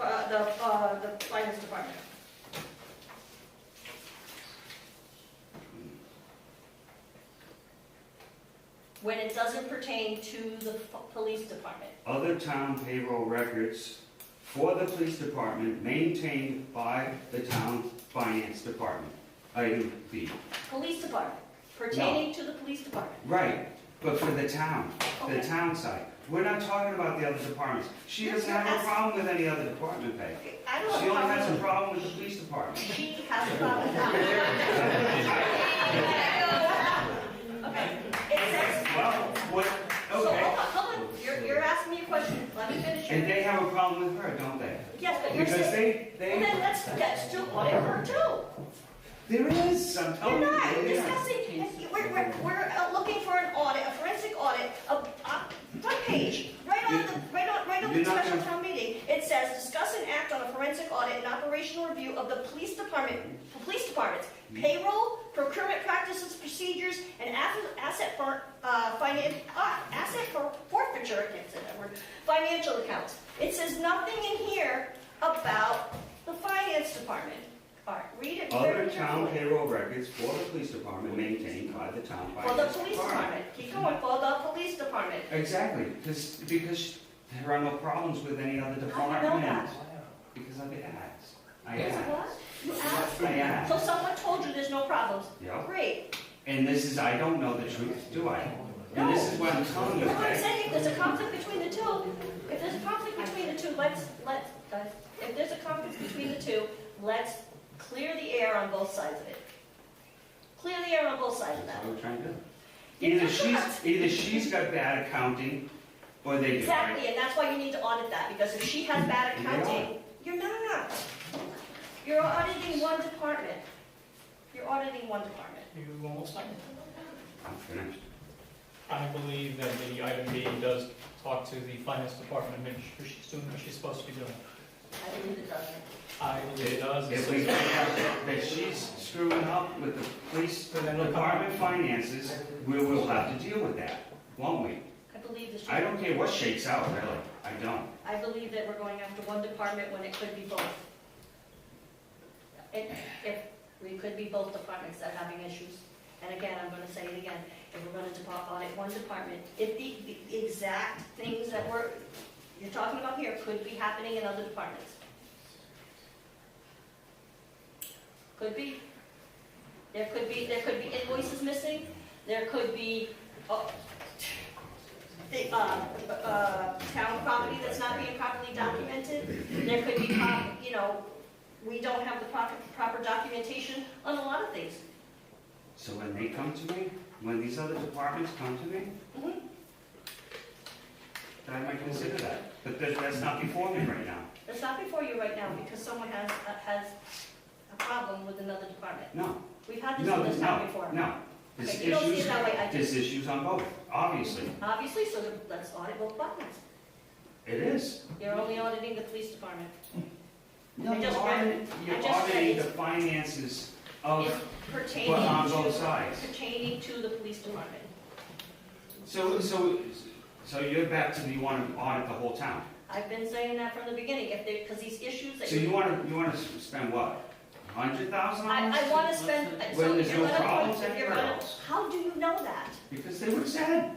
uh, when it doesn't pertain to the f- police department. other town payroll records for the police department maintained by the town finance department. Item B. Police department, pertaining to the police department. Right, but for the town, the Okay. town side. We're not talking about the other departments. She doesn't have a problem with any other department pay. Okay, I don't She know only how has a to- problem with the police department. She has a problem. Okay, it says, Well, what, so hold on, okay. hold on, you're, you're asking me a question, let me finish And your, they have a problem with her, don't they? yes, but you're Because saying, they, well, they, then let's, let's do audit her too. there is, I'm We're telling you, not there is. discussing, we're, we're, we're uh, looking for an audit, a forensic audit, a, a front page, right on the, right on, right on the You're not special gonna- town meeting. It says, discuss and act on a forensic audit and operational review of the police department, police departments, payroll, procurement practices, procedures, and ath- asset for, uh, finance, ah, asset for forfeiture, I can't say that word, financial accounts. It says nothing in here about the finance department. All right, read it very Other carefully. town payroll records for the police department maintained by the town For the finance police department. department, keep going, for the police department. Exactly, because, because there are no problems with any other How do you know that? department. Because I've asked. I Because asked. what? You asked? I asked. So someone told you there's no problems? Yep. Great. And this is, I don't know the truth, do I? And this is what I'm telling you, That's what I'm okay? saying, if there's a conflict between the two, if there's a conflict between the two, let's, let's, guys, if there's a conflict between the two, let's clear the air on both sides of it. Clear the air on both sides of That's that. what I'm trying to do. You Either just she's, asked. either she's got bad accounting, or they do, right? Exactly, and that's why you need to audit that, because if she has bad You are. accounting, you're not. You're auditing one department. You're auditing one department. You almost done. I'm finished. I believe that the item B does talk to the finance department, make sure she's doing what she's supposed to be doing. I believe it doesn't. I believe it does. It If we says- find out that- that she's screwing up with the police department finances, we will have to deal with that, won't we? I believe this, I don't care what shakes out, really, I don't. I believe that we're going after one department when it could be both. It, if, we could be both departments that are having issues. And again, I'm gonna say it again, if we're gonna depart, audit one department, if the, the exact things that we're, you're talking about here could be happening in other departments. Could be. There could be, there could be invoices missing, there could be, oh, the, uh, uh, town property that's not being properly documented. There could be, prop- you know, we don't have the proper, proper documentation on a lot of things. So when they come to me, when these other departments come to me, Mhm. then I might consider that. But that, that's not before me right now. It's not before you right now because someone has, uh, has a problem with another department. No, We've had this no, in this town no, before. no. There's Okay, you don't see it issues, that way, I do. there's issues on both, obviously. Obviously, so let's audit both departments. It is. You're only auditing the police department. No, I you're just auditing, you're I just read auditing the it. finances It's of, pertaining but on both to, sides. pertaining to the police department. So, so, so you're back to, you want to audit the whole town? I've been saying that from the beginning, if they, because these issues that So you want to, you want to spend what, a hundred thousand I, dollars? I wanna spend, When so there's if you're no gonna, problems if you're anywhere gonna, else. how do you know that? Because they would have said,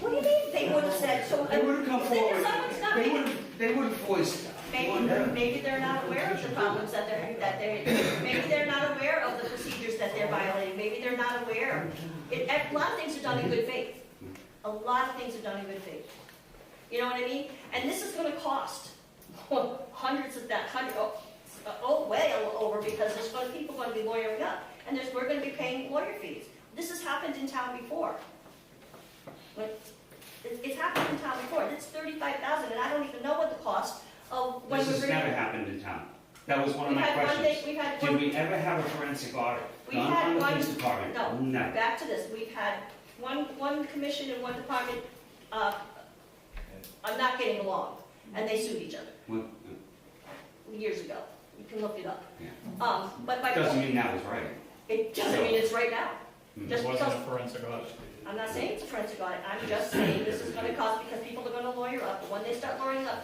What do you mean they would have said, so, they would have come if forward, someone's not they making- would have, they would have voiced. maybe, maybe they're not aware of the problems that they're, that they, maybe they're not aware of the procedures that they're violating, maybe they're not aware. It, a lot of things are done in good faith, a lot of things are done in good faith. You know what I mean? And this is gonna cost hundreds of that, hundred, oh, oh, way over, because there's gonna, people gonna be lawyering up, and there's, we're gonna be paying lawyer fees. This has happened in town before. Like, it- It's happened in town before, it's thirty-five thousand, and I don't even know what the cost of when This we're. has never happened in town. That was one of my questions. We've had one Did thing, we've we ever have a forensic audit We done had on the one- police department? no. No. had one, back to this, we've had one, one commission and one department, uh, I'm not getting along, and they sued each other Well, years ago, you can look it up. Yeah. Um, but my it Doesn't mean that was right. It doesn't mean it's right now. Hmm. It Just wasn't because, a forensic audit. I'm not saying it's a forensic audit, I'm just saying this is gonna cost, because people are gonna lawyer up, but when they start lawyering up,